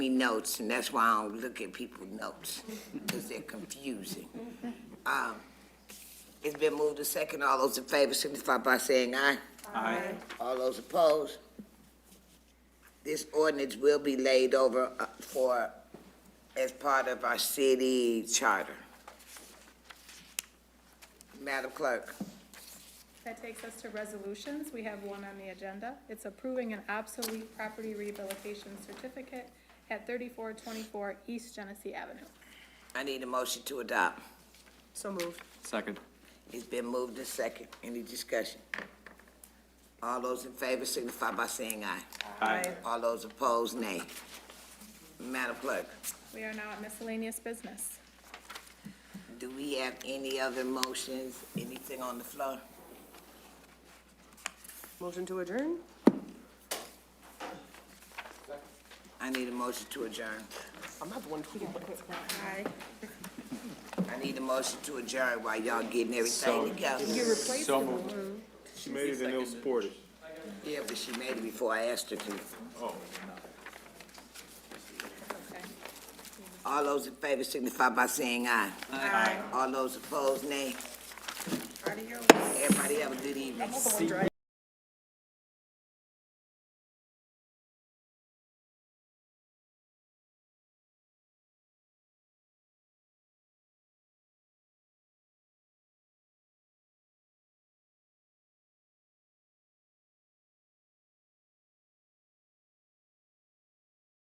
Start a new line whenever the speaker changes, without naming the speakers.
me notes, and that's why I don't look at people's notes, because they're confusing. Um, It's been moved to second. All those in favor signify by saying aye.
Aye.
All those opposed? This ordinance will be laid over uh, for, as part of our city charter. Madam Clerk,
That takes us to resolutions. We have one on the agenda. It's approving an obsolete property rehabilitation certificate at thirty-four twenty-four East Genesee Avenue.
I need a motion to adopt.
So moved.
Second.
It's been moved to second. Any discussion? All those in favor signify by saying aye.
Aye.
All those opposed, nay. Madam Clerk,
We are now at miscellaneous business.
do we have any other motions, anything on the floor?
Motion to adjourn?
I need a motion to adjourn.
I'm not the one tweeting. but-
Aye.
I need a motion to adjourn while y'all getting everything together.
So moved.
She made it and it was supported.
Yeah, but she made it before I asked her to.
Okay.
All those in favor signify by saying aye. Aye. All those opposed, nay. Everybody have a good evening.
I'm not the one driving.